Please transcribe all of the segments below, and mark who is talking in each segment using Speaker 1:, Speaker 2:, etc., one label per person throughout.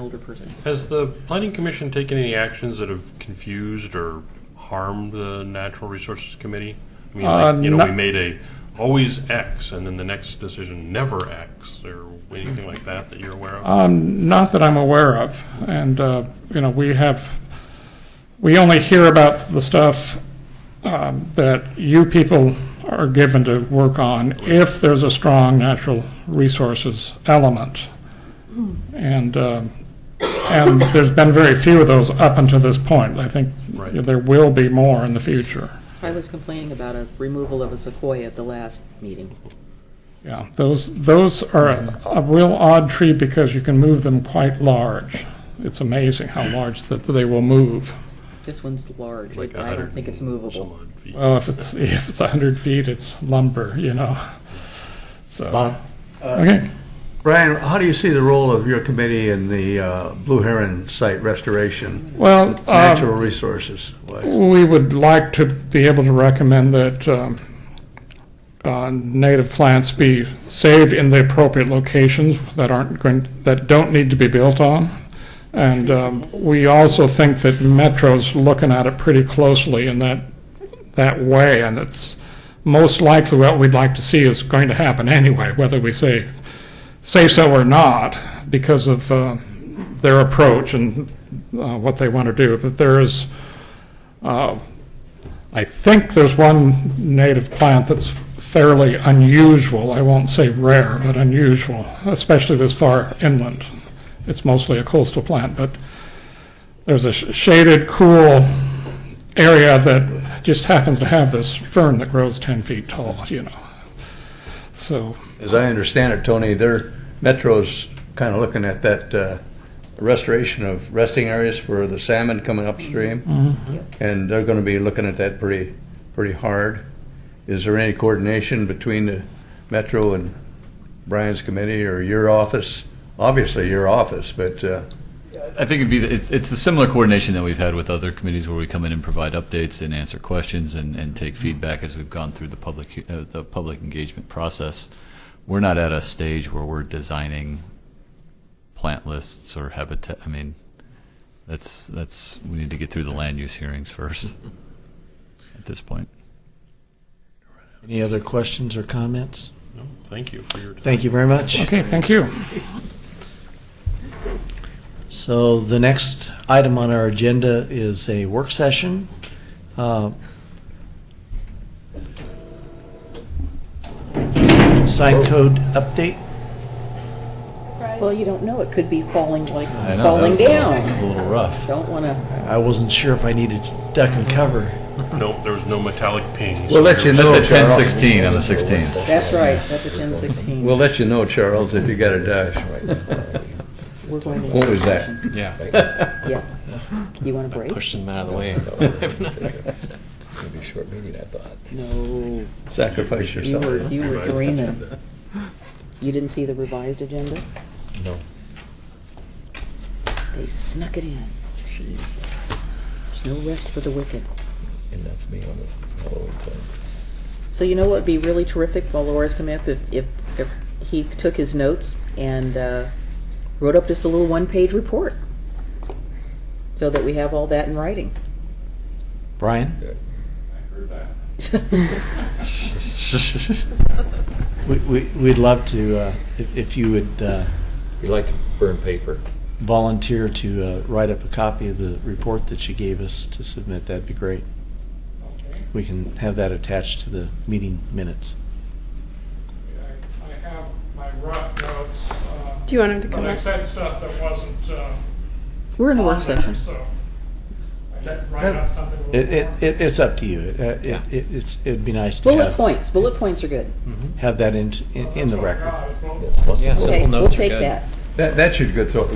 Speaker 1: older person.
Speaker 2: Has the Planning Commission taken any actions that have confused or harmed the Natural Resources Committee? I mean,
Speaker 3: Uh,
Speaker 2: like, you know, we
Speaker 3: no-
Speaker 2: made a always X, and then the next decision never X, or anything like that that you're aware of?
Speaker 3: Um, Not that I'm aware of. And, uh, you know, we have, we only hear about the stuff um, that you people are given to work on if there's a strong natural resources element. And, um, and there's been very few of those up until this point. I think
Speaker 2: Right.
Speaker 3: there will be more in the future.
Speaker 1: I was complaining about a removal of a sequoia at the last meeting.
Speaker 3: Yeah, those, those are a- a real odd tree because you can move them quite large. It's amazing how large that they will move.
Speaker 1: This one's large.
Speaker 2: Like
Speaker 1: I don't think it's
Speaker 2: 100 and some
Speaker 1: movable.
Speaker 2: odd feet.
Speaker 3: Well, Oh, if it's, if it's 100 feet, it's lumber, you know, so,
Speaker 4: Bob?
Speaker 3: okay.
Speaker 4: Brian, how do you see the role of your committee in the uh, Blue Heron site restoration,
Speaker 3: Well,
Speaker 4: natural
Speaker 3: um,
Speaker 4: resources? wise?
Speaker 3: we would like to be able to recommend that um, uh, native plants be saved in the appropriate locations that aren't going, that don't need to be built on. And um, we also think that Metro's looking at it pretty closely in that, that way, and it's most likely what we'd like to see is going to happen anyway, whether we say, say so or not, because of uh, their approach and uh, what they want to do. But there is, uh, I think there's one native plant that's fairly unusual, I won't say rare, but unusual, especially this far inland. It's mostly a coastal plant, but there's a sh- shaded, cool area that just happens to have this fern that grows 10 feet tall, you know. So,
Speaker 4: As I understand it, Tony, their Metro's kind of looking at that uh, restoration of resting areas for the salmon coming upstream, and they're going to be looking at that pretty, pretty hard. Is there any coordination between the Metro and Brian's committee or your office? Obviously, your office, but uh,
Speaker 5: I think it'd be it's it's a similar coordination that we've had with other committees where we come in and provide updates and answer questions and, and take feedback as we've gone through the public uh, the public engagement process. We're not at a stage where we're designing plant lists or habitat. I mean, that's that's we need to get through the land use hearings first at this point.
Speaker 6: Any other questions or comments?
Speaker 2: No, Thank you for your time.
Speaker 6: Thank you very much.
Speaker 3: okay, thank you.
Speaker 6: So the next item on our agenda is a work session. Uh, Sign code update.
Speaker 1: Well, you don't know. It could be falling like
Speaker 5: I know,
Speaker 1: falling
Speaker 5: that was- that was
Speaker 1: down.
Speaker 5: a little rough.
Speaker 1: Don't want to.
Speaker 6: I wasn't sure if I needed to duck and cover.
Speaker 2: Nope, there was no metallic pings.
Speaker 4: We'll let you
Speaker 5: That's
Speaker 4: know,
Speaker 5: at ten
Speaker 4: Charles.
Speaker 5: sixteen on the sixteenth.
Speaker 1: That's right. That's a 1016.
Speaker 4: We'll let you know, Charles, if you got a dash.
Speaker 1: We're going to
Speaker 4: What was that?
Speaker 7: Yeah,
Speaker 1: Yeah. You want a break?
Speaker 7: pushed him out of the way.
Speaker 8: It's gonna be a short meeting, I thought.
Speaker 1: No.
Speaker 4: Sacrifice
Speaker 1: You
Speaker 4: yourself.
Speaker 1: were, you were dreaming. You didn't see the revised agenda?
Speaker 8: No.
Speaker 1: They snuck it in.
Speaker 8: Jeez.
Speaker 1: There's no rest for the wicked.
Speaker 8: And that's me on this Halloween thing.
Speaker 1: So you know what would be really terrific while Laura's come up if, if, if he took his notes and uh, wrote up just a little one-page report, so that we have all that in writing.
Speaker 6: Brian, we, we, we'd love to, uh, if, if you would, uh,
Speaker 7: We like to burn paper.
Speaker 6: volunteer to uh, write up a copy of the report that you gave us to submit, that'd be great. We can have that attached to the meeting minutes.
Speaker 3: I have my rough notes. uh,
Speaker 9: Do you want him to come up?
Speaker 3: stuff that wasn't, uh,
Speaker 1: We're in a work session.
Speaker 3: I didn't
Speaker 6: write up
Speaker 3: something
Speaker 6: It, it, it- it's up to you. It, uh,
Speaker 7: Yeah.
Speaker 6: it, it- it's, it'd be nice to
Speaker 1: Bullet
Speaker 6: have,
Speaker 1: points, bullet points are good.
Speaker 7: Mm.
Speaker 6: have that in, in in the record.
Speaker 8: Yes, lots of
Speaker 7: Yeah,
Speaker 8: little-
Speaker 1: Okay,
Speaker 7: Simple
Speaker 1: we'll
Speaker 7: notes are
Speaker 1: take
Speaker 7: good.
Speaker 1: that.
Speaker 4: That, that should go through,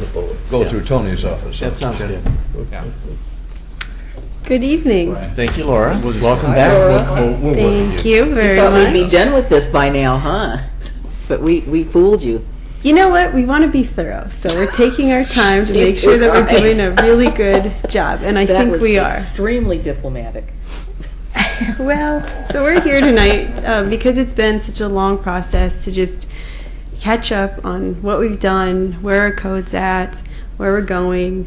Speaker 4: go through Tony's office.
Speaker 6: That sounds good.
Speaker 7: Yeah.
Speaker 9: Good evening.
Speaker 6: Thank you, Laura.
Speaker 5: We'll just-
Speaker 6: Welcome back.
Speaker 1: Laura.
Speaker 6: We'll- we'll- we'll work with
Speaker 9: Thank you very
Speaker 1: Thought we'd be
Speaker 9: much.
Speaker 1: done with this by now, huh? But we, we fooled you.
Speaker 9: You know what? We want to be thorough, so we're taking our time to make sure that we're doing a really good job, and I
Speaker 1: That
Speaker 9: think
Speaker 1: was
Speaker 9: we are.
Speaker 1: extremely diplomatic.
Speaker 9: Well, so we're here tonight um, because it's been such a long process to just catch up on what we've done, where our code's at, where we're going,